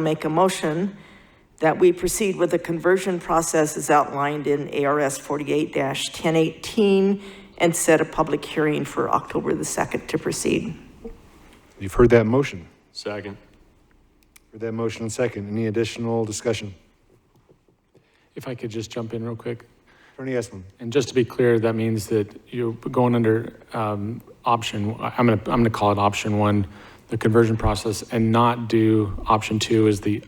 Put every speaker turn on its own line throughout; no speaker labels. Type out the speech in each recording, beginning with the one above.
make a motion that we proceed with the conversion process as outlined in ARS 48-1018 and set a public hearing for October the 2nd to proceed.
You've heard that motion.
Second.
Heard that motion and second. Any additional discussion?
If I could just jump in real quick,
Attorney Esplin,
and just to be clear, that means that you're going under um, option, I'm going to, I'm going to call it option one, the conversion process, and not do option two is the,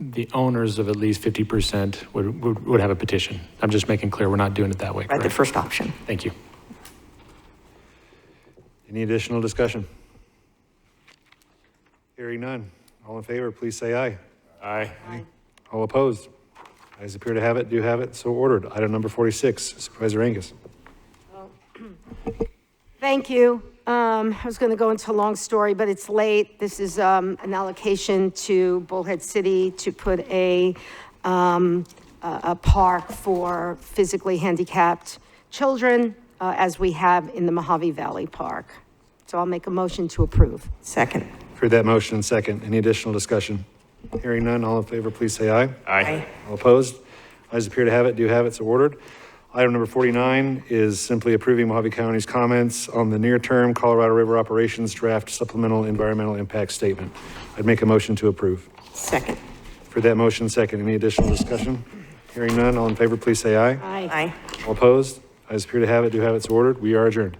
the owners of at least 50% would, would would have a petition. I'm just making clear, we're not doing it that way.
Right, the
correct?
first option.
Thank you.
any additional discussion? Hearing none. All in favor, please say aye.
Aye.
All opposed? Eyes appear to have it, do have it, so ordered. Item number 46, Supervisor Angus.
Thank you. Um, I was going to go into a long story, but it's late. This is um, an allocation to Bullhead City to put a, um, a a park for physically handicapped children, uh, as we have in the Mojave Valley Park. So I'll make a motion to approve.
Second.
Heard that motion and second. Any additional discussion? Hearing none. All in favor, please say aye.
Aye.
All opposed? Eyes appear to have it, do have it, so ordered. Item number 49 is simply approving Mojave County's comments on the near-term Colorado River Operations Draft Supplemental Environmental Impact Statement. I'd make a motion to approve.
Second.
For that motion, second. Any additional discussion? Hearing none, all in favor, please say aye.
Aye.
Aye.
All opposed? Eyes appear to have it, do have it, so ordered. We are adjourned.